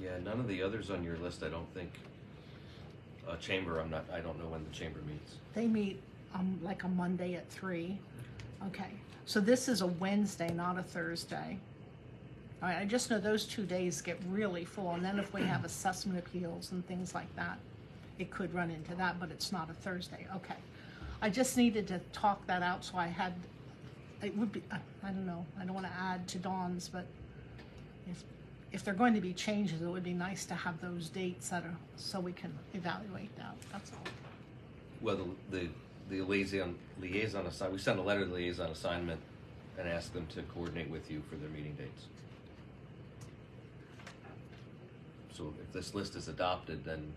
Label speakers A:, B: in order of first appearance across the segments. A: Yeah, none of the others on your list, I don't think. Uh, chamber, I'm not, I don't know when the chamber meets.
B: They meet um, like a Monday at three. Okay, so this is a Wednesday, not a Thursday. All right, I just know those two days get really full, and then if we have assessment appeals and things like that, it could run into that, but it's not a Thursday, okay. I just needed to talk that out, so I had, it would be, I I don't know, I don't wanna add to Dawn's, but if, if they're going to be changes, it would be nice to have those dates that are, so we can evaluate that, that's all.
A: Well, the, the, the liaison, liaison assign, we sent a letter to liaison assignment and asked them to coordinate with you for their meeting dates. So if this list is adopted, then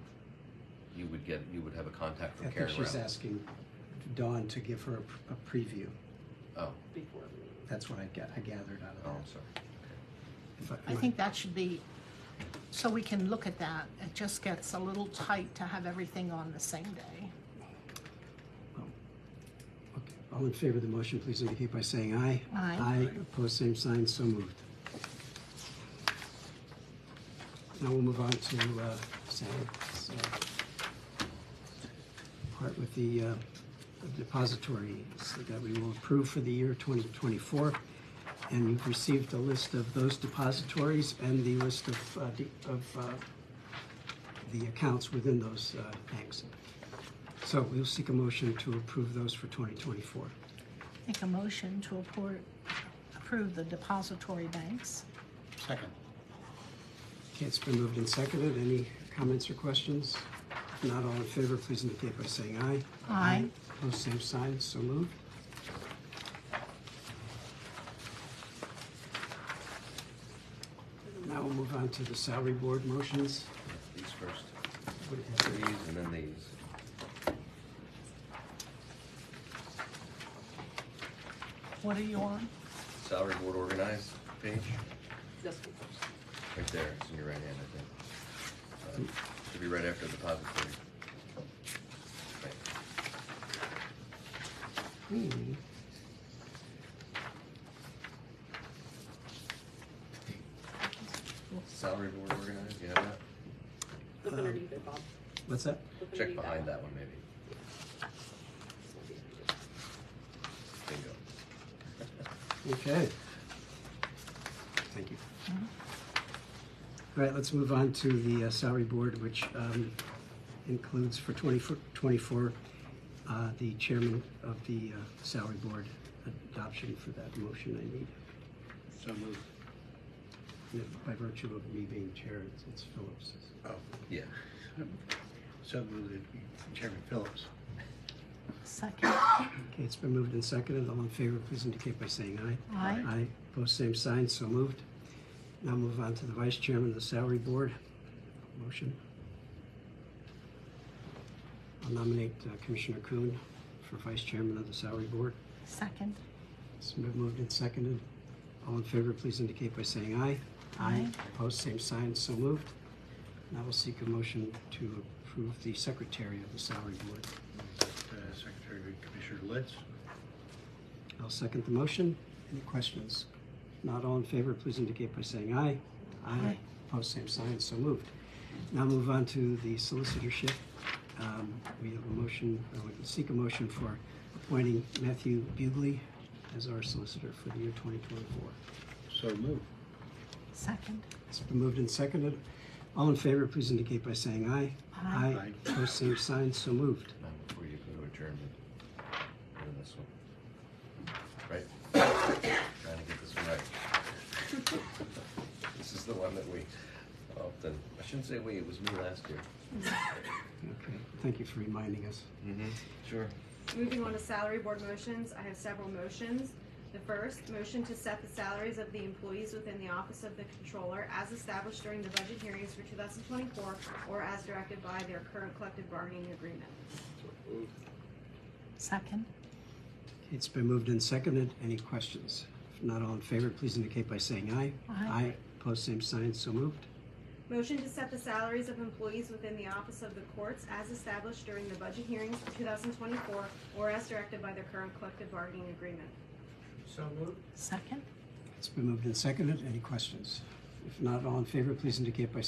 A: you would get, you would have a contact
C: I
A: from
C: think
A: Karen
C: she's
A: Rao.
C: asking Dawn to give her a pr- a preview.
A: Oh,
D: before the meeting.
C: That's what I ga- I gathered out of
A: oh,
C: that.
A: I'm sorry.
C: If
B: I
C: am
B: think that should be, so we can look at that. It just gets a little tight to have everything on the same day.
C: okay. All in favor of the motion, please indicate by saying aye.
B: Aye.
C: Aye, opposed, same sign, so moved. Now we'll move on to uh, Sam's uh, part with the uh, depository that we will approve for the year 2024. And you've received a list of those depositories and the list of, uh, de- of uh, the accounts within those uh, banks. So we'll seek a motion to approve those for 2024.
B: Make a motion to appro- approve the depository banks.
E: Second.
C: Okay, it's been moved and seconded. Any comments or questions? If not all in favor, please indicate by saying aye.
B: Aye.
C: Opposed, same sign, so moved. Now we'll move on to the salary board motions.
A: These first,
C: What do you have?
A: these and then these.
B: What are you on?
A: Salary board organized page,
D: This one.
A: right there, it's in your right hand, I think. Uh, Should be right after the depository. Right.
C: Hmm.
A: Salary board organized, you have that?
D: Look
C: Um,
D: underneath it, Bob.
C: What's that?
D: Look
A: Uh, Check
D: underneath
A: behind that one maybe.
D: one.
A: Bingo.
C: Okay. Thank you. All right, let's move on to the uh, salary board, which um, includes for 2024, uh, the chairman of the uh, salary board adoption for that motion I need.
E: So moved.
C: By virtue of me being chair, it's- it's Phillips.
E: Oh,
A: Yeah.
E: so moved, Chairman Phillips.
B: Second.
C: Okay, it's been moved and seconded. All in favor, please indicate by saying aye.
B: Aye.
C: Aye. Opposed, same sign, so moved. Now move on to the vice chairman of the salary board. Motion. I'll nominate uh, Commissioner Kuhn for vice chairman of the salary board.
B: Second.
C: It's been moved and seconded. All in favor, please indicate by saying aye.
B: Aye.
C: Opposed, same sign, so moved. Now we'll seek a motion to approve the secretary of the salary board.
E: Uh, Secretary Commissioner Litz.
C: I'll second the motion. Any questions? Not all in favor, please indicate by saying aye.
B: Aye.
C: Opposed, same sign, so moved. Now move on to the solicitorship. Um, We have a motion, or we can seek a motion for appointing Matthew Bugley as our solicitor for the year 2024.
E: So moved.
B: Second.
C: It's been moved and seconded. All in favor, please indicate by saying aye.
B: Aye.
E: Aye.
C: Opposed, same sign, so moved.
A: Now, before you go to adjournment, go to this one. Right? Trying to get this one right. This is the one that we often, I shouldn't say we, it was me last year.
C: Okay, thank you for reminding us.
A: Mm-hmm. Sure.
F: Moving on to salary board motions, I have several motions. The first, motion to set the salaries of the employees within the Office of the Controller as established during the budget hearings for 2024 or as directed by their current collective bargaining agreement.
B: Second.
C: It's been moved and seconded. Any questions? If not all in favor, please indicate by saying aye.
B: Aye.
C: Opposed, same sign, so moved.
F: Motion to set the salaries of employees within the Office of the Courts as established during the budget hearings for 2024 or as directed by their current collective bargaining agreement.
E: So moved.
B: Second.
C: It's been moved and seconded. Any questions? If not all in favor, please indicate by